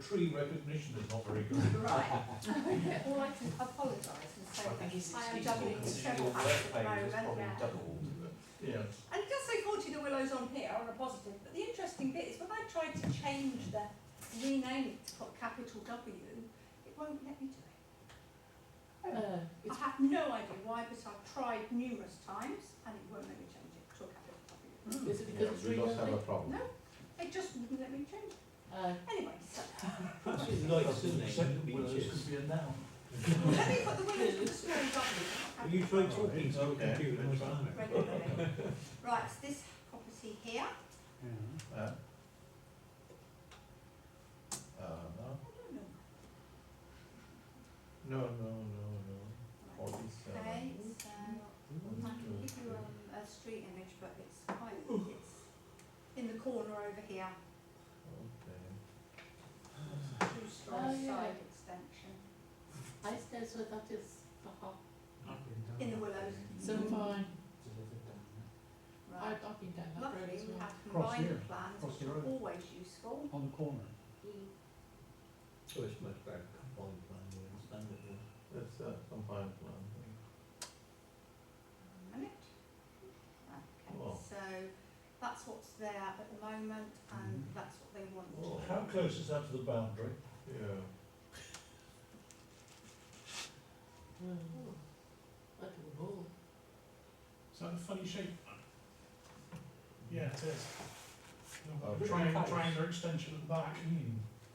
tree recognition is not very good. Right. Well, I can apologise and say I think he's I am excusable doubling the considering your work treble act at the pay was moment. probably doubled. Yeah. And it does say Forty the Willows on here on a positive, but the interesting bit is when I tried to change the, rename it to put capital W, it won't let me do it. I Uh, it's, have no idea why, but I've tried numerous times and it won't let me change it to a capital W. is it because it's we must have a rebuilding? problem. Hmm. It just wouldn't let me change it. Uh, Anyway, so, Perhaps It's it's like like Sydney, second willows beaches. could be a noun. let me put the Willows with a small W. Are you trying to talking to a Okay. computer? That's Mr. Allen? Regularly. Right, it's this property here. Uh, uh, no, I don't no, no, no, know. no. Right. Forty-seven. Okay, so I can give you um, a street image, but it's quite, it's in the corner over here, Okay. two Oh, story yeah. side extension, I said so that is for half. in the willows. So fine. Right, I've, I've been down that road luckily as we well. have Cross here, combined plans, cross which the are road. always useful. On the corner. So Oh, it's much better combined language than standard. yeah. That's uh, a combined plan. A minute. Okay, Wow. so that's what's there at the moment and that's what they want. Wow. How close is that to the boundary? Yeah. Oh, Like a wall. Is that a funny shape? Yeah, it is. Oh, The really? Triangle, triangular extension at the back.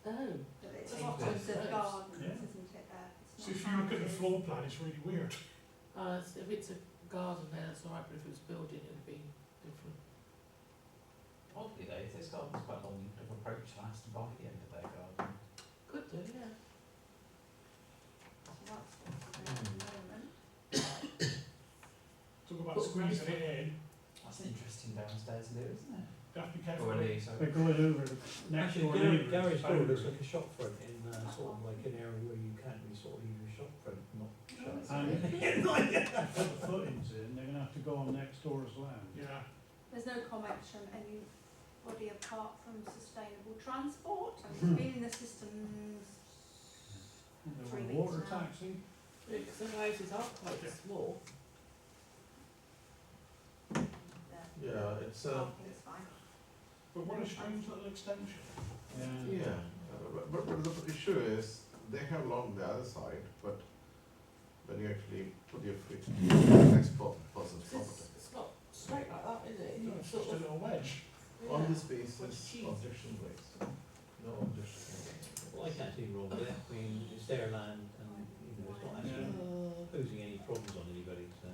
Oh, But it's Yeah. bottoms of Yeah. gardens, Yeah. isn't it, there? It's So not if you look at the houses. floor plan, it's really weird. uh, it's- if it's a garden there, that's all right, but if it was building, it would be different. Oddly though, if this garden's quite long, you could have approached and asked to buy the end of their garden. Could do, yeah. So that's what's there at the moment. Talk about But squeezing right. it in. That's an interesting downstairs loo, isn't it? You have to be Or careful. at least, They're going over the next Actually, door Gary, neighbour's Gary's door looks boundary. like a shop front in, uh, sort of like an area where you can't really sort of use your shop front, not it's shut. And really if good. they put the footings in, they're gonna have to go on next door's land. Yeah. There's no comments from anybody apart from sustainable transport, and Hmm. it's been in the systems. They Three want a weeks water now. taxi. Because the houses are quite small. the Yeah, it's uh, a, Parking's fine. But what a strange little extension. yeah, Uh, but, but, but the issue is, they have along the other side, but when you actually put your feet on the next po- person's property. It's, it's not straight like that, is it? No, It's It's just sort a of, little wedge. On yeah. this basis, What's cheese? objection raised, no objection. Well, I can't see wrong with it, I mean, it's their land and, you know, it's not actually Uh, posing any problems on anybody, so.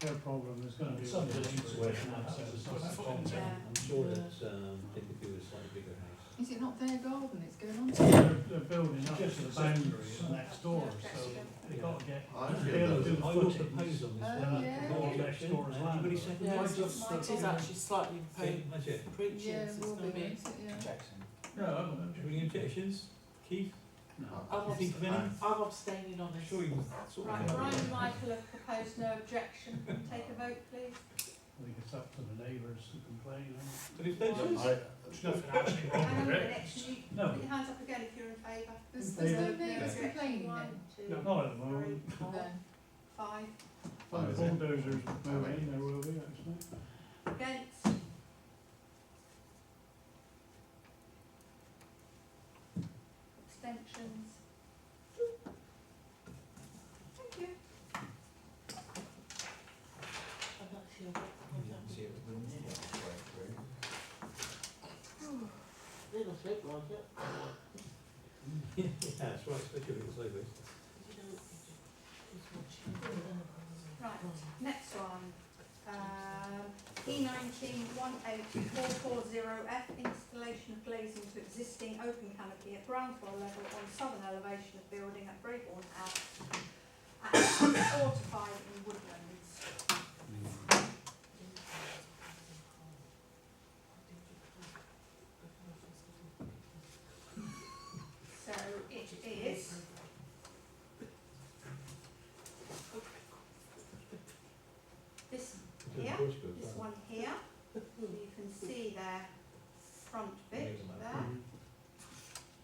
Their problem is gonna be. Some with the distance neighbours away and from that's that, it. it's So that not- foot in there. Yeah. I'm sure that, um, they could do with a slightly bigger house. Is it not their garden it's going on to? They're, they're building up to Just the the boundary second- of next door, so they Yeah. gotta get, I they'll feel do that, the I will footings. propose on this Oh, They'll have to one. yeah. go on Yeah. next door's Anybody land. second? Yeah, that? it's, my it is garden. actually slightly Okay, pain, that's it. preaching, Yeah, it's will gonna be. be, won't it? yeah. Jackson. No, I haven't. Any objections, Keith? No. I'm You think of any? Uh, I'm abstaining on I'm this. sure you sort of. Right, Brian and Michael have proposed no objection, take a vote please. I think it's up to the neighbours to complain. huh? But if they do, I, There's nothing actually wrong Hang on with a it. minute, should you No. put your hands up again if you're in favour? There's, there's no Yeah. neighbours Objection, complaining One, then? two, Not at the three, moment. four, No. five, When the Five, isn't it? bulldozers move in, there will be, actually. against. Abstentions. Thank you. I'm not sure. You can see it with the knee all the way through. Little shape like it. yeah, that's right, especially if it's like this. You know, it's watching. Right. Next one, um, E nineteen one eight four four zero F, installation of glazing to existing open canopy at ground floor level on southern elevation of building at Brayborn House at four to five in Woodlands. So É, it is this It's a Yeah, bush, but- This one here,